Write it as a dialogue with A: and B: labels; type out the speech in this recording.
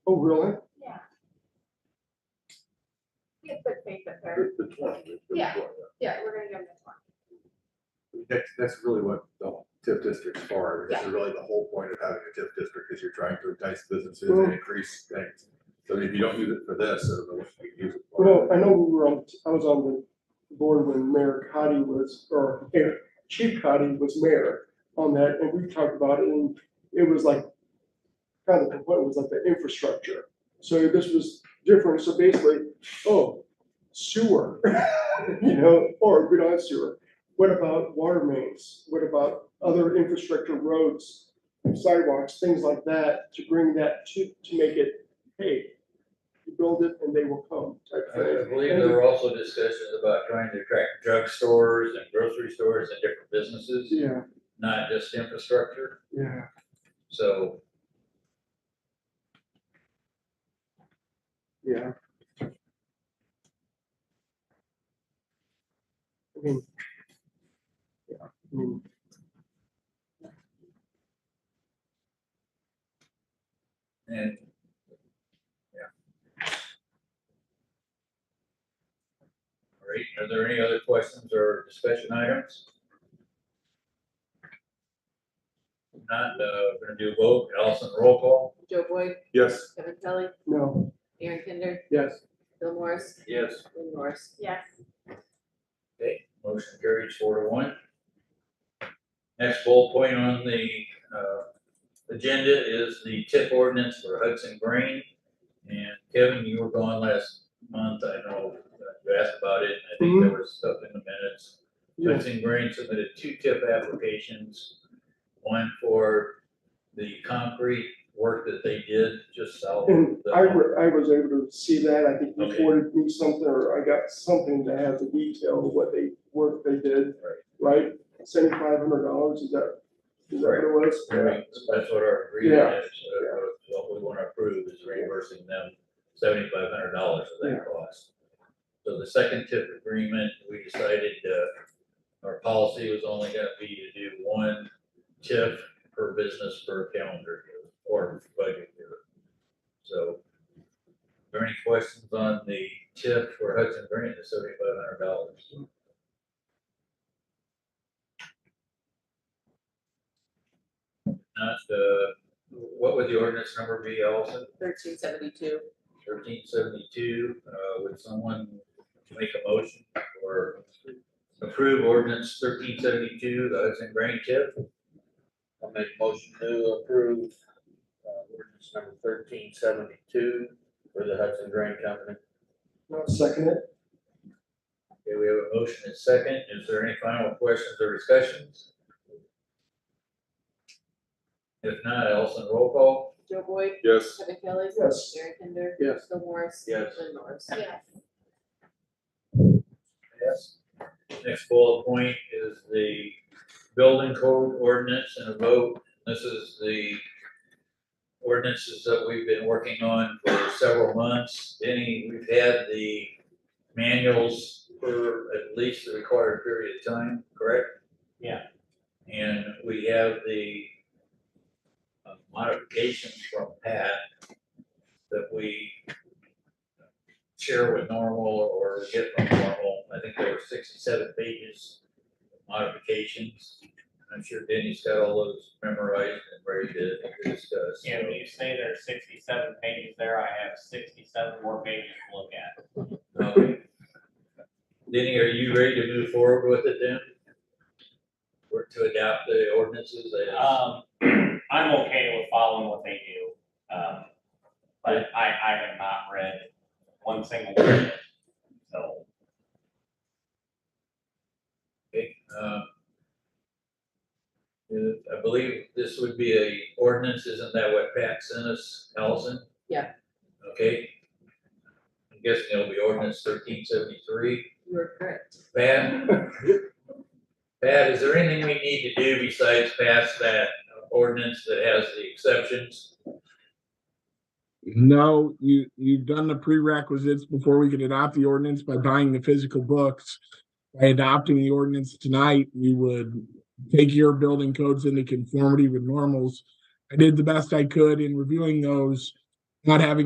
A: Oh, really?
B: Yeah. We have good faith that they're,
C: The the twenty. the- the
B: Yeah.
C: 20.
B: yeah, we're gonna give them this one.
C: That's, that's really what the TIF district's for, is
B: Yeah.
C: really the whole point of having a TIF district, is you're trying to entice businesses
A: Well-
C: and increase things. So if you don't use it for this, I don't know what you can use it for.
A: Well, I know we were on, I was on the board when Mayor Cotty was, or Mayor- Chief Cotty was mayor on that, and we talked about it, and it was like, kind of, the complaint was like the infrastructure. So this was different, so basically, oh, sewer, you know, or we don't have sewer. What about water mains? What about other infrastructure, roads, sidewalks, things like that, to bring that to, to make it, hey, you build it and they will come type thing.
D: I believe there were also discussions about trying to attract drugstores and grocery stores and different businesses,
A: Yeah,
D: not just infrastructure,
A: yeah.
D: so.
A: Yeah. I mean. Yeah, I mean.
D: And All right, are there any other questions or discussion items? If Not, uh, we're gonna do a vote, Allison, roll call?
E: Joe Boyd,
C: Yes,
E: Kevin Kelly,
A: No,
E: Aaron Kinder,
A: yes,
E: Bill Morris,
D: Yes.
E: Lynn Norris.
B: Yes,
D: Okay, motion carries four to one. Next bullet point on the, uh, agenda is the tip ordinance for Hudson Grain. And Kevin, you were gone last month, I know, uh, you asked about it, and I think
A: Mm-hmm.
D: there was stuff in the minutes.
A: yes,
D: Hudson Grain submitted two tip applications, one for the concrete work that they did just south
A: and
D: of the.
A: I, wa- I was able to see that, I think you
D: Okay.
A: forwarded me something, or I got something that has the detail of what they, work they did,
D: Right.
A: right? Seventy-five hundred dollars, is that, is that what it was?
D: Right, so That's what our
A: Yeah.
D: agreement is, uh, what we want to approve is reimbursing them seventy-five hundred dollars of that cost. So the second tip agreement, we decided, uh, our policy was only gonna be to do one tip per business per calendar year or budget year. So, are there any questions on the tip for Hudson Green, the seventy-five hundred dollars? Not, uh, what would the ordinance number be, Allison?
E: Thirteen seventy-two.
D: thirteen seventy-two, uh, would someone make a motion or approve ordinance thirteen seventy-two, the Hudson Grain Tip?
F: I'll make a motion to approve, uh, ordinance number thirteen seventy-two for the Hudson Grain Company.
A: No, second it?
D: Okay, we have a motion and second, is there any final questions or discussions? If not, Allison, roll call?
E: Joe Boyd,
C: yes.
E: Kevin Kelly,
A: Yes.
E: Aaron Kinder,
A: Yes.
E: Bill Morris.
F: Yes.
E: Lynn Norris.
B: yes.
D: Yes. Next bullet point is the building code ordinance and a vote. This is the ordinances that we've been working on for several months. Any, we've had the manuals for at least the required period of time, correct?
F: Yeah.
D: And we have the uh, modifications from Pat that we share with normal or get from normal. I think there were sixty-seven pages of modifications. I'm sure Denny's got all those memorized and ready to discuss.
G: Yeah, when you say there's sixty-seven pages there, I have sixty-seven more pages to look at.
D: Okay. Um, Denny, are you ready to move forward with it then? Or to adopt the ordinances as-
G: Um, I'm okay with following what they do, um, but I, I have not read one single word of it. So,
D: Okay, um, uh, I believe this would be a ordinance, isn't that what Pat sent us, Allison?
E: Yeah.
D: Okay. I'm guessing it'll be ordinance thirteen seventy-three.
E: You are correct.
D: Pat? Pat, is there anything we need to do besides pass that ordinance that has the exceptions?
H: No, you, you've done the prerequisites before we could adopt the ordinance by buying the physical books. By adopting the ordinance tonight, we would take your building codes into conformity with normals. I did the best I could in reviewing those, not having